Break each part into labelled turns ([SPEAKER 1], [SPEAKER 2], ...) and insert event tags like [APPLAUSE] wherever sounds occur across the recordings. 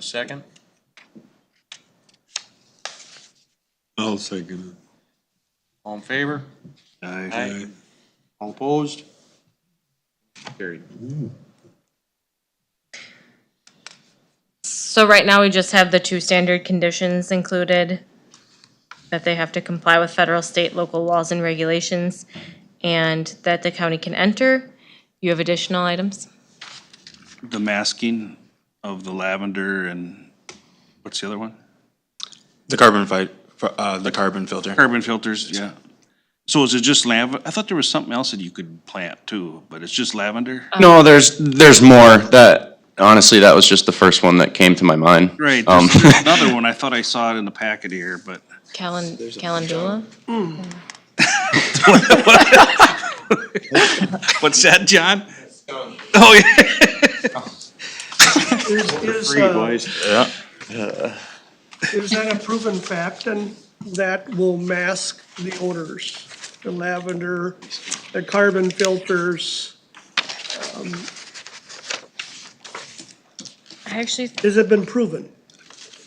[SPEAKER 1] second?
[SPEAKER 2] I'll second
[SPEAKER 1] All in favor?
[SPEAKER 2] it.
[SPEAKER 1] Aye. All opposed? Carried.
[SPEAKER 3] So right now, we just have the two standard conditions included, that they have to comply with federal, state, local laws and regulations, and that the county can enter. You have additional items?
[SPEAKER 4] the masking of the lavender and, what's the other one?
[SPEAKER 5] The carbon fight, uh, the carbon filter.
[SPEAKER 4] Carbon filters, yeah. So is it just lav, I thought there was something else that you could plant too, but it's just lavender?
[SPEAKER 5] No, there's, there's more. That, honestly, that was just the first one that came to my mind.
[SPEAKER 4] Right,
[SPEAKER 5] Um,
[SPEAKER 4] there's there's another one, I thought I saw it in the packet here, but
[SPEAKER 3] Callan, Calendula?
[SPEAKER 4] what's that, John? Oh, yeah,
[SPEAKER 6] Is, uh, is that a proven fact and that will mask the odors? The lavender, the carbon filters,
[SPEAKER 3] I
[SPEAKER 7] [LAUGHS]
[SPEAKER 3] actually,
[SPEAKER 6] has it been proven?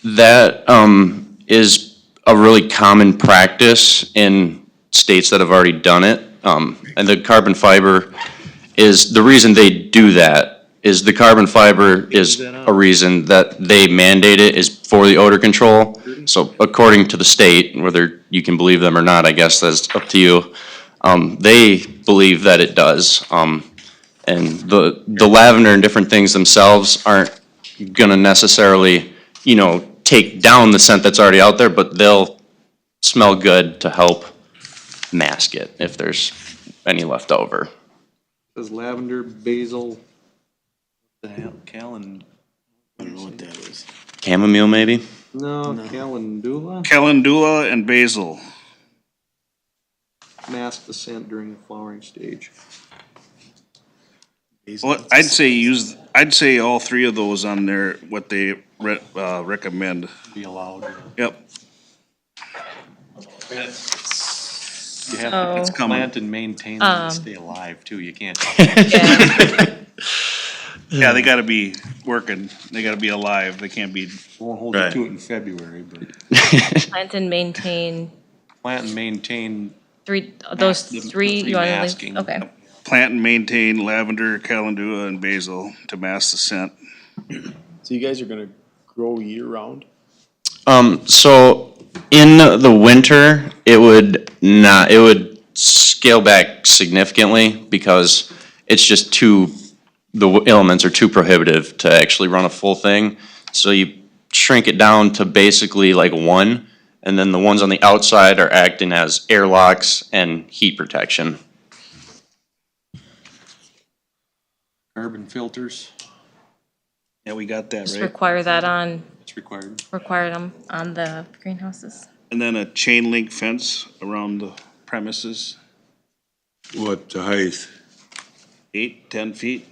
[SPEAKER 5] That, um, is a really common practice in states that have already done it. Um, and the carbon fiber is, the reason they do that is the carbon fiber is a reason that they mandate it is for the odor control. So according to the state, whether you can believe them or not, I guess that's up to you. Um, they believe that it does. Um, and the, the lavender and different things themselves aren't gonna necessarily, you know, take down the scent that's already out there, but they'll smell good to help mask it if there's any left over.
[SPEAKER 7] Says lavender, basil, the hell, calen,
[SPEAKER 5] Chamomile, maybe?
[SPEAKER 7] no, calendula,
[SPEAKER 4] calendula and basil.
[SPEAKER 7] mask the scent during the flowering stage.
[SPEAKER 4] Well, I'd say use, I'd say all three of those on there, what they re- uh, recommend.
[SPEAKER 7] Be allowed.
[SPEAKER 4] Yep,
[SPEAKER 7] You have
[SPEAKER 3] oh,
[SPEAKER 4] it's
[SPEAKER 7] to
[SPEAKER 4] coming.
[SPEAKER 7] plant and maintain them and stay alive too, you can't.
[SPEAKER 3] yeah,
[SPEAKER 4] Yeah, they gotta be working, they gotta be alive, they can't be
[SPEAKER 7] Won't hold you
[SPEAKER 5] Right.
[SPEAKER 7] to it in February, but
[SPEAKER 3] plant and maintain
[SPEAKER 7] plant and maintain
[SPEAKER 3] three, those
[SPEAKER 7] Mask- the-
[SPEAKER 3] three,
[SPEAKER 7] the
[SPEAKER 3] you wanna leave?
[SPEAKER 7] masking.
[SPEAKER 3] Okay,
[SPEAKER 4] Plant and maintain lavender, calendula, and basil to mask the scent.
[SPEAKER 8] So you guys are gonna grow year round?
[SPEAKER 5] Um, so in the winter, it would not, it would scale back significantly because it's just too, the elements are too prohibitive to actually run a full thing. So you shrink it down to basically like one, and then the ones on the outside are acting as airlocks and heat protection.
[SPEAKER 7] carbon filters,
[SPEAKER 4] Yeah, we got that,
[SPEAKER 3] just
[SPEAKER 4] right?
[SPEAKER 3] require that on,
[SPEAKER 7] it's required.
[SPEAKER 3] require them on the greenhouses.
[SPEAKER 4] And then a chain link fence around the premises,
[SPEAKER 2] What the height?
[SPEAKER 4] eight, ten feet,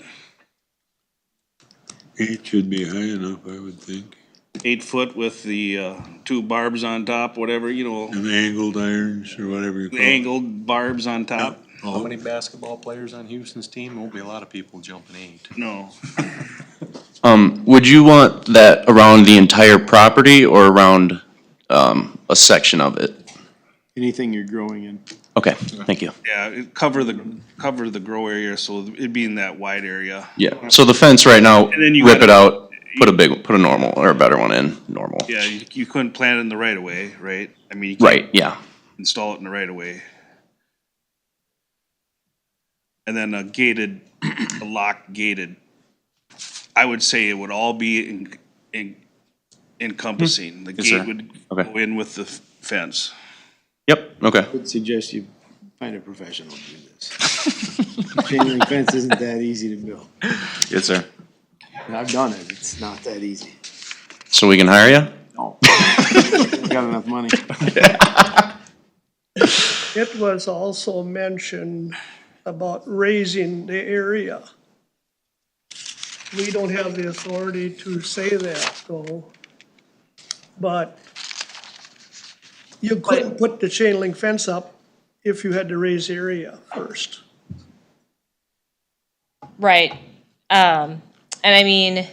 [SPEAKER 2] Eight should be high enough, I would think.
[SPEAKER 4] eight foot with the, uh, two barbs on top, whatever, you know,
[SPEAKER 2] And angled irons or whatever you
[SPEAKER 4] the
[SPEAKER 2] call it.
[SPEAKER 4] angled barbs on top.
[SPEAKER 7] How
[SPEAKER 2] Oh,
[SPEAKER 7] many basketball players on Houston's team? Won't be a lot of people jumping eight.
[SPEAKER 4] No,
[SPEAKER 5] Um, would you want that around the entire property or around, um, a section of it?
[SPEAKER 8] Anything you're growing in?
[SPEAKER 5] Okay, thank you.
[SPEAKER 4] yeah, it cover the, cover the grow area, so it'd be in that wide area.
[SPEAKER 5] Yeah, so the fence right now,
[SPEAKER 4] then you
[SPEAKER 5] rip
[SPEAKER 4] gotta-
[SPEAKER 5] it out, put a big, put a normal, or a better one in, normal.
[SPEAKER 4] Yeah, you, you couldn't plant it in the right of way, right? I mean, you can't
[SPEAKER 5] Right, yeah.
[SPEAKER 4] install it in the right of way. And then a gated, [CLEARS THROAT] a lock gated. I would say it would all be en- en- encompassing. The
[SPEAKER 5] Mm-hmm. sir.
[SPEAKER 4] gate would
[SPEAKER 5] Okay.
[SPEAKER 4] go in with the f- fence.
[SPEAKER 5] Yep, okay.
[SPEAKER 8] Would suggest you find a professional to do this. [LAUGHS] Chain link fence isn't that easy to build.
[SPEAKER 5] Yes, sir.
[SPEAKER 8] And I've done it, it's not that easy.
[SPEAKER 5] So we can hire you?
[SPEAKER 8] No. Got enough money.
[SPEAKER 6] It was also mentioned about raising the area. We don't have the authority to say that, though. But you couldn't put the chain link fence up if you had to raise the area first.
[SPEAKER 3] Right, um, and I mean,